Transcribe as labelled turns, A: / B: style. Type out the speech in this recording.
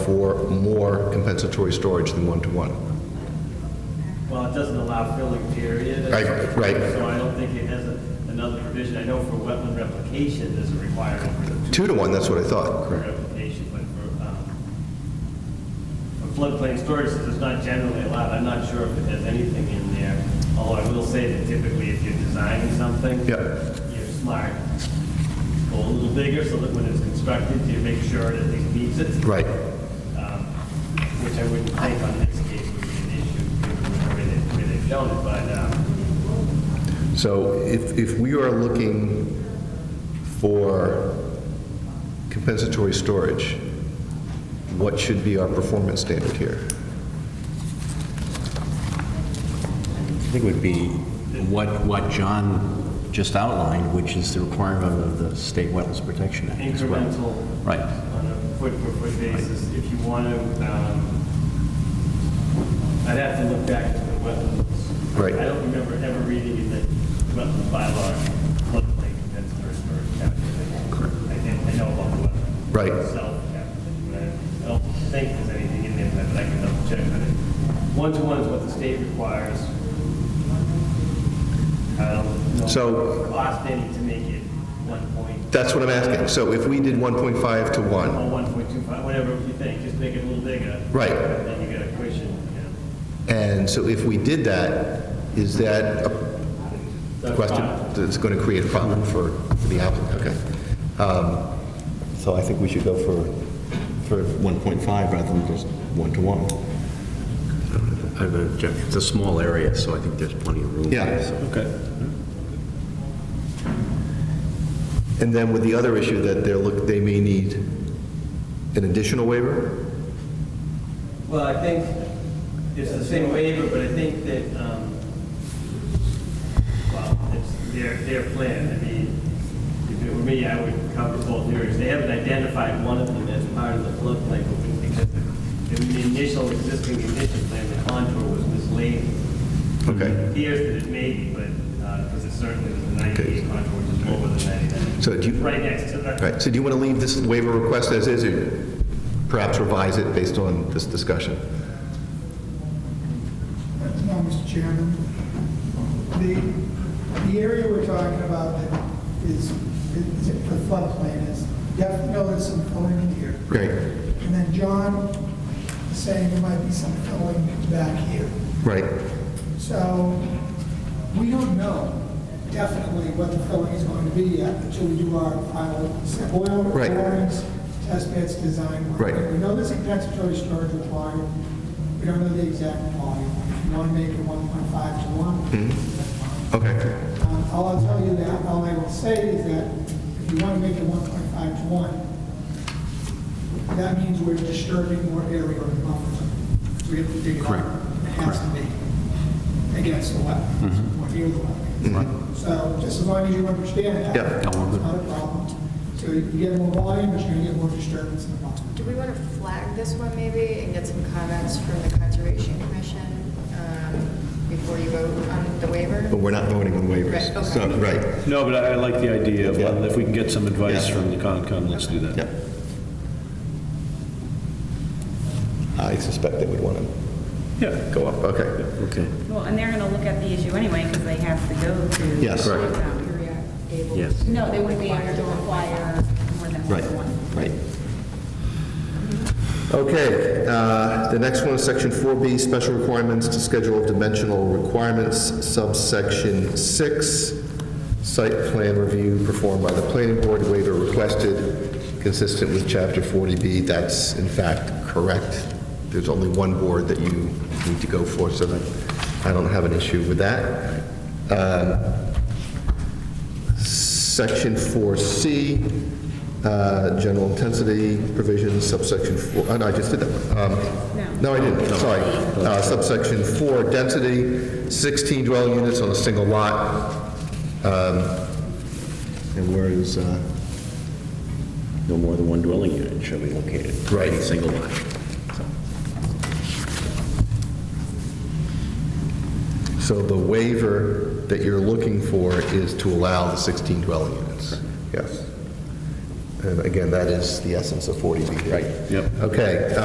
A: for more compensatory storage than one-to-one.
B: Well, it doesn't allow filling, period.
A: Right, right.
B: So I don't think it has a- another provision. I know for wetland replication, there's a requirement for the
A: Two-to-one, that's what I thought.
B: for replication, but for, um, for floodplain storage, since it's not generally allowed, I'm not sure if it has anything in there. Although I will say that typically if you're designing something.
A: Yep.
B: You're smart. Go a little bigger so that when it's constructed, you make sure it at least meets it.
A: Right.
B: um, which I wouldn't think on this case would be an issue, given the way they- way they've shown it, but, um,
A: So if, if we are looking for compensatory storage, what should be our performance standard here?
C: I think it would be what, what John just outlined, which is the requirement of the State Wetlands Protection Act as well.
B: incremental.
C: Right.
B: On a foot-per-foot basis, if you want to, um, I'd have to look back to the wetlands.
A: Right.
B: I don't remember ever reading in the wetland bylaw, floodplain compensatory storage calculation. Correct. I think, I know about the wetland.
A: Right.
B: Itself, calculation, but I don't think there's anything in there, but I can double check on it. One-to-one is what the state requires. I don't know.
A: So-
B: if it Cost any to make it one point
A: That's what I'm asking. So if we did 1.5 to 1,
B: or 1.25, whatever you think, just make it a little bigger.
A: Right.
B: Then you got a cushion, yeah.
A: and so if we did that, is that a
B: That's
A: question
B: fine.
A: that's going to create a problem for for the applicant? Okay. Um, So I think we should go for, for
C: 1.5 rather than just one-to-one. I have an objection. It's a small area, so I think there's plenty of room.
A: Yeah.
C: there, so-
A: And then with the other issue that they're, look, they may need an additional waiver?
B: Well, I think it's the same waiver, but I think that, um, well, it's their, their plan. I mean, if it were me, I would cover both areas. They haven't identified one of them as part of the floodplain, but because the- the initial existing condition plan, the contour was misleading. It
A: Okay.
B: appears that it may be, but, because it certainly was the 98 contour, which is lower than 99.
A: So do you-
B: Right next to
A: All
B: the,
A: right, so do you want to leave this waiver request as is, or perhaps revise it based on this discussion?
D: No, Mr. Chairman. The, the area we're talking about that is, is the floodplain is, definitely there's some filling in here.
A: Great.
D: And then John is saying there might be some filling back here.
A: Right,
D: So we don't know definitely what the filling is going to be yet until we do our final set oil
A: Right.
D: borings, test bits, design work.
A: Right.
D: We know there's a compensatory storage required. We don't know the exact volume. If you want to make it 1.5 to
A: Mm-hmm.
D: 1, that's fine.
A: okay.
D: Um, All I'll tell you that, all I will say is that if you want to make it 1.5 to 1, that means we're disturbing more area of the buffer zone. So we have to dig it up.
C: Correct. Mm-hmm.
D: It has to be against the wetlands, or near the wetlands. So just as long as you understand that.
A: Yeah.
C: No, we're good.
D: It's not a problem. So you get more volume, but you're going to get more disturbance in the buffer.
E: Do we want to flag this one maybe and get some comments from the Conservation Commission um, before you vote on the waiver?
A: But we're not voting on waivers.
E: Right, okay.
A: So, Uh, Right,
F: No, but I I like the idea of,
A: Yeah.
F: if we can get some advice
A: Yeah.
F: from the Concom, let's do that.
A: yeah. I suspect they would want to
F: Yeah.
A: go up, okay.
C: Okay.
G: Well, and they're going to look at the issue anyway because they have to go to.
A: Yes. Correct.
G: Um,
E: You're able.
C: Yes.
G: No, they wouldn't be able to require more than
A: Right,
G: one.
A: right. Okay, uh, the next one is section 4B, special requirements to schedule of dimensional requirements, subsection 6, site plan review performed by the planning board, waiver requested, consistent with chapter 40B. That's in fact correct. There's only one board that you need to go for, so that, I don't have an issue with that. Um, Section 4C, uh, general intensity provisions, subsection 4, oh, no, I just did that. Um, No, I didn't, sorry. Uh, Subsection 4, density, 16 dwelling units on a single lot. Um, And where is, uh,
C: No more than one dwelling unit shall be located.
A: Right.
C: in a Single lot.
A: so the waiver that you're looking for is to allow the 16 dwelling units? Yes. And again, that is the essence of 40B. Right.
F: Yep.
A: Okay, uh,